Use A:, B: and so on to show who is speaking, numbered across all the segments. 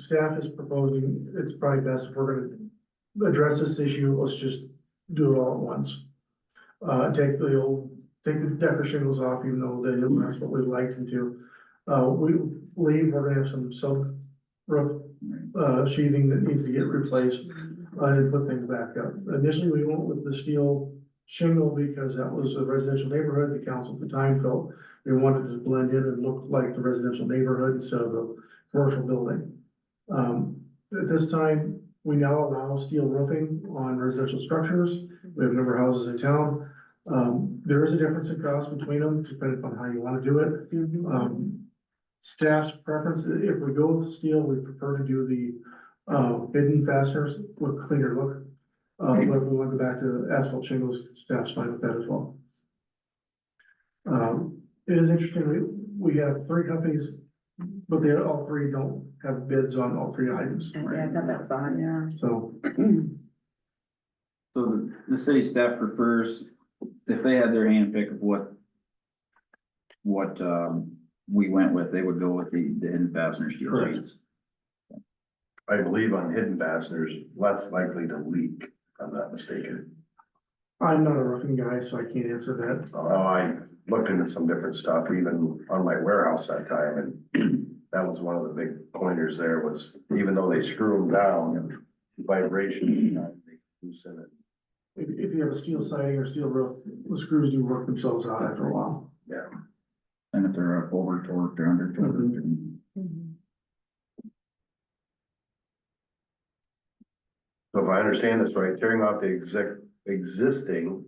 A: staff is proposing, it's probably best if we're gonna address this issue, let's just do it all at once. Uh, take the old, take the decker shingles off, even though they didn't, that's what we liked them to. Uh, we believe we're gonna have some silk roof, uh, sheathing that needs to get replaced, uh, and put things back up. Initially, we went with the steel shingle because that was a residential neighborhood, the council at the time felt they wanted to blend in and look like the residential neighborhood instead of a commercial building. Um, at this time, we now allow steel roofing on residential structures. We have a number of houses in town. Um, there is a difference in cost between them, depending on how you want to do it. Um, staff's preference, i- if we go with steel, we prefer to do the, uh, bidden fasteners with cleaner look. Uh, but if we want to go back to asphalt shingles, staff's fine with that as well. Um, it is interesting, we, we have three companies but they all three don't have bids on all three items,
B: Yeah, I thought that was on, yeah.
A: so,
C: So the, the city staff prefers, if they had their handpick of what, what, um, we went with, they would go with the, the hidden fastener steel
A: Correct.
C: sheets.
D: I believe on hidden fasteners, less likely to leak, if I'm not mistaken.
A: I'm not a roofing guy, so I can't answer that.
D: Uh, I looked into some different stuff, even on my warehouse that time, and that was one of the big pointers there was, even though they screw them down, vibration, uh, they loosen it.
A: If, if you have a steel siding or steel roof, the screws do work themselves out after a while.
C: And if they're over torqued or under torqued, and
B: Mm-hmm.
D: So if I understand this right, tearing off the exec, existing,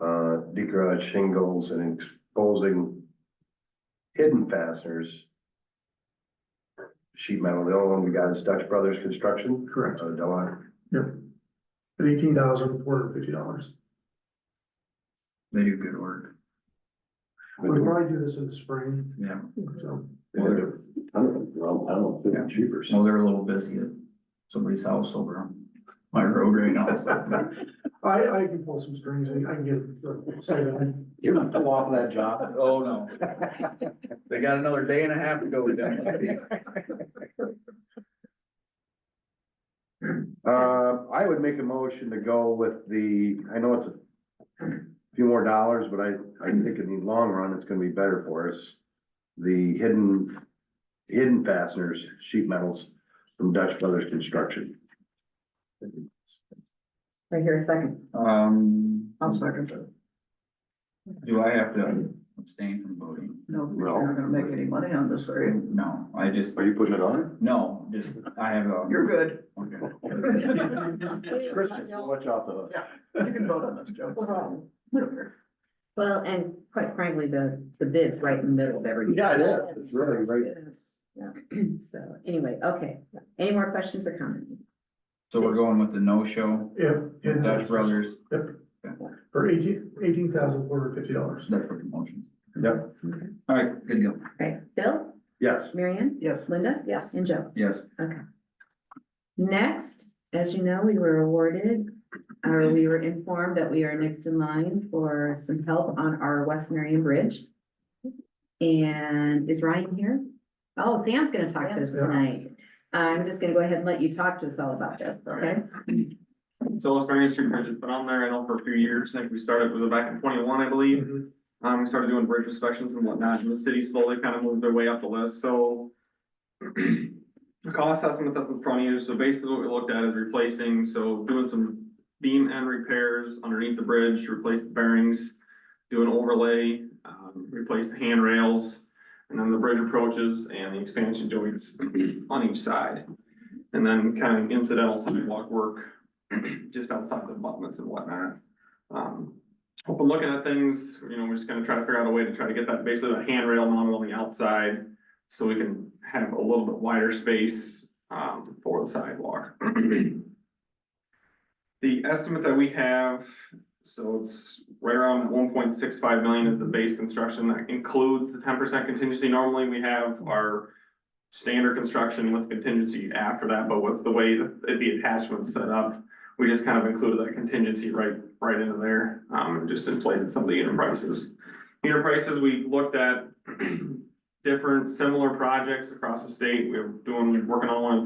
D: uh, decorative shingles and exposing hidden fasteners. Sheet metal, the only one we got is Dutch Brothers Construction,
A: Correct.
D: uh, Delaware.
A: At eighteen thousand four hundred fifty dollars.
C: they do good work,
A: We'll probably do this in the spring,
C: yeah.
A: so.
D: They did a ton of them, well, I don't think it's cheaper. so-
C: So they're a little busy at somebody's house over on my road right now, so.
A: I, I can pull some strings and I can get uh, a siding.
C: You're not pull off that job. Oh, no. They got another day and a half to go down.
D: Uh, I would make a motion to go with the, I know it's a few more dollars, but I, I think in the long run, it's gonna be better for us. The hidden, hidden fasteners, sheet metals from Dutch Brothers Construction.
B: Right here, a second.
C: Um.
B: I'll second
C: Do I have to abstain from voting?
B: No,
D: we're not
B: gonna make any money on this, are
C: No, I just,
D: you putting it on?
C: no, just, I have a.
B: You're good.
C: Okay.
D: It's Christmas, so much off the hook.
B: You can vote on this, Joe. Well, and quite frankly, the, the bid's right in the middle of everything.
D: Yeah, it is. It's really right-
B: It is, yeah. So anyway, okay. Any more questions or comments?
C: So we're going with the no-show,
A: Yeah. and
C: Dutch Brothers,
A: For eighteen, eighteen thousand four hundred fifty dollars.
C: that's for the motion.
D: Yep,
B: Okay.
C: All right, good deal,
B: All right, Bill,
D: yes.
B: Marianne,
E: Yes.
B: Linda?
E: Yes.
B: And Joe.
C: yes.
B: Next, as you know, we were awarded, or we were informed that we are next in line for some help on our West Marion Bridge. And is Ryan here? Oh, Sam's gonna talk to us tonight. I'm just gonna go ahead and let you talk to us all about this, okay?
F: So West Marion Street Bridge has been on there, I know for a few years, I think we started, was it back in twenty-one, I believe? Um, we started doing bridge inspections and whatnot, and the city slowly kind of moved their way up the list, so. The cost estimate that's in front of you, so basically what we looked at is replacing, so doing some beam end repairs underneath the bridge, replace the bearings. Do an overlay, um, replace the handrails, and then the bridge approaches and the expansion joints on each side. And then kind of incidental sidewalk work just outside the abutments and whatnot. Um, I've been looking at things, you know, we're just gonna try to figure out a way to try to get that, basically the handrail mounted on the outside. So we can have a little bit wider space, um, for the sidewalk. The estimate that we have, so it's right around one point six five million is the base construction, that includes the ten percent contingency. Normally, we have our standard construction with contingency after that, but with the way that the attachment's set up, we just kind of included that contingency right, right into there, um, and just inflated some of the unit prices. Unit prices, we looked at different similar projects across the state, we we're doing, working on one in